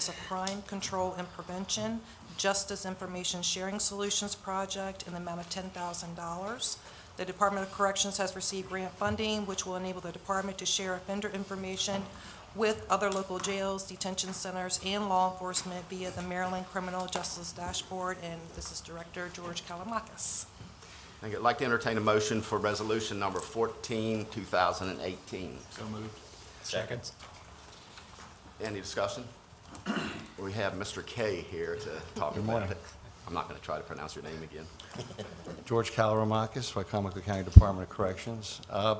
is a crime control and prevention, justice information sharing solutions project in the amount of $10,000. The Department of Corrections has received grant funding, which will enable the department to share offender information with other local jails, detention centers, and law enforcement via the Maryland Criminal Justice Dashboard, and this is Director George Kalamakis. Thank you. I'd like to entertain a motion for resolution number 14, 2018. So moved. Seconds. Any discussion? We have Mr. Kay here to talk about morning. it. I'm not going to try to pronounce your name again. George Calramakis, Wycomico County Department of Corrections. Uh,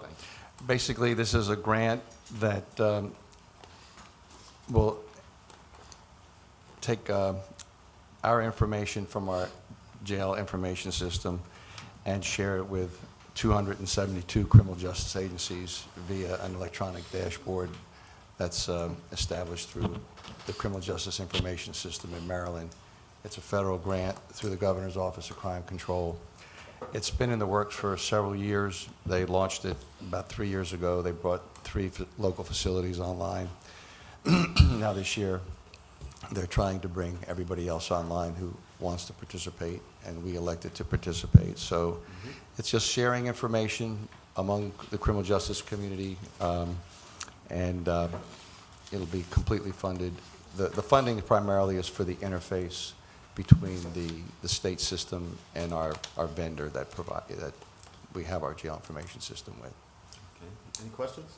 Basically, this is a grant that um, will take uh, our information from our jail information system and share it with 272 criminal justice agencies via an electronic dashboard that's um, established through the Criminal Justice Information System in Maryland. It's a federal grant through the Governor's Office of Crime Control. It's been in the works for several years. They launched it about three years ago. They brought three f- local facilities online. Now this year, they're trying to bring everybody else online who wants to participate, and we elected to participate. So it's just sharing information among the criminal justice community, um, and uh, it'll be completely funded. The, the funding primarily is for the interface between the, the state system and our, our vendor that provide, that we have our jail information system with. Okay. Any questions?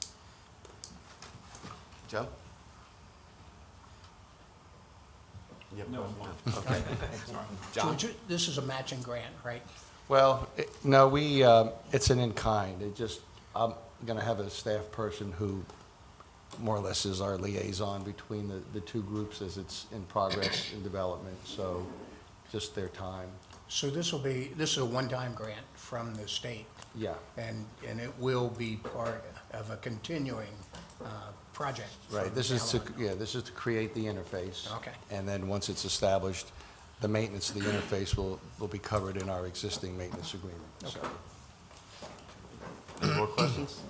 Joe? You have a No, question? one. Okay. John? George, this is a matching grant, right? Well, it- no, we, um, it's an in-kind. It just, I'm going to have a staff person who more or less is our liaison between the, the two groups as it's in progress and development, so just their time. So this will be, this is a one-time grant from the state, Yeah, and, and it will be part of a continuing uh, project. from right. This is to, now on. yeah, this is to create the interface. Okay. And then once it's established, the maintenance of the interface will, will be covered in our existing maintenance agreement. So Any more questions?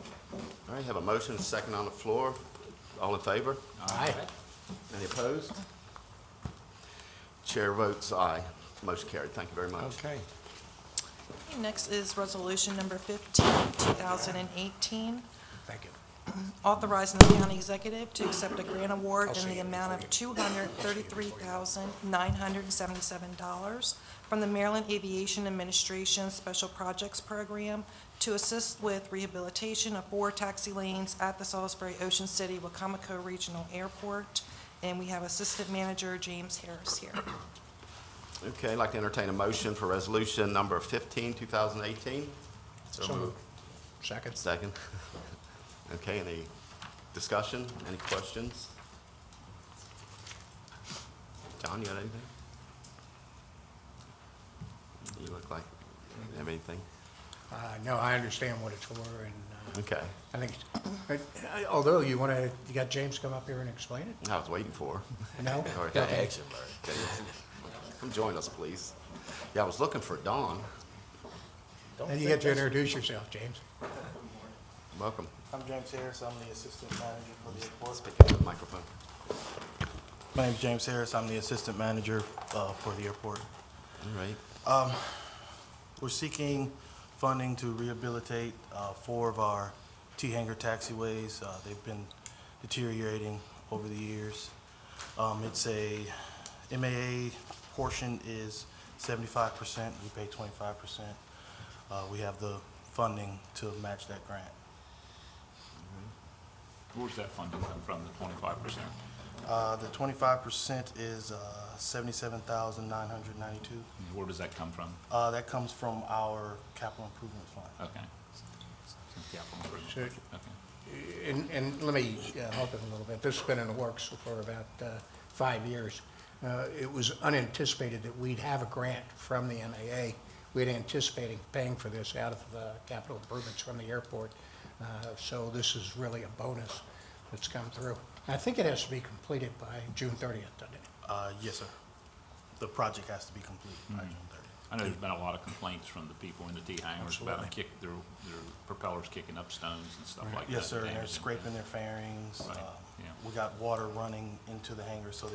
All right, have a motion, second on the floor. All in favor? Aye. Any opposed? Chair votes aye. Motion carried. Thank you very much. Okay. Next is Resolution Number 15, 2018, Thank you. authorizing the county executive to accept a grant award in the amount of $233,977 from the Maryland Aviation Administration Special Projects Program to assist with rehabilitation of four taxi lanes at the Salisbury Ocean City Wacomico Regional Airport. And we have Assistant Manager James Harris here. Okay, I'd like to entertain a motion for resolution number 15, 2018. So moved. Second? Second. Okay, any discussion, any questions? John, you got anything? You look like, you have anything? Uh, No, I understand what it's for, and uh, Okay, I think, it's- I- I- although you want to, you got James come up here and explain it? I was waiting for. No? All right. Okay. Come join us, please. Yeah, I was looking for Dawn. And you get to introduce yourself, James. Welcome. I'm James Harris, I'm the assistant manager for the airport. Pick up the microphone. My name's James Harris, I'm the assistant manager uh, for the airport. All right. We're seeking funding to rehabilitate uh, four of our T-hanger taxiways. Uh, They've been deteriorating over the years. Um, It's a, MAA portion is 75%, we pay 25%. Uh, We have the funding to match that grant. Where's that funding come from, the twenty-five percent? Uh, The 25% is uh, 77,992. Where does that come from? Uh, that comes from our capital improvement fund. Okay. Capital improvement. Sure. Okay. And, and let me uh, help it a little bit. This has been in the works for about uh, five years. Uh, It was unanticipated that we'd have a grant from the MAA. We'd anticipated paying for this out of the capital improvements from the airport. Uh, So this is really a bonus that's come through. I think it has to be completed by June 30th, doesn't it? Uh, yes, sir. The project has to be completed Mm-hmm. by June thirtieth. I know there's been a lot of complaints from the people in the T-hangers about them Absolutely. kick, their, their propellers kicking up stones and stuff like that. Yes, sir, and they're damaging them. scraping their fairings. Right, um, yeah. We got water running into the hangar, so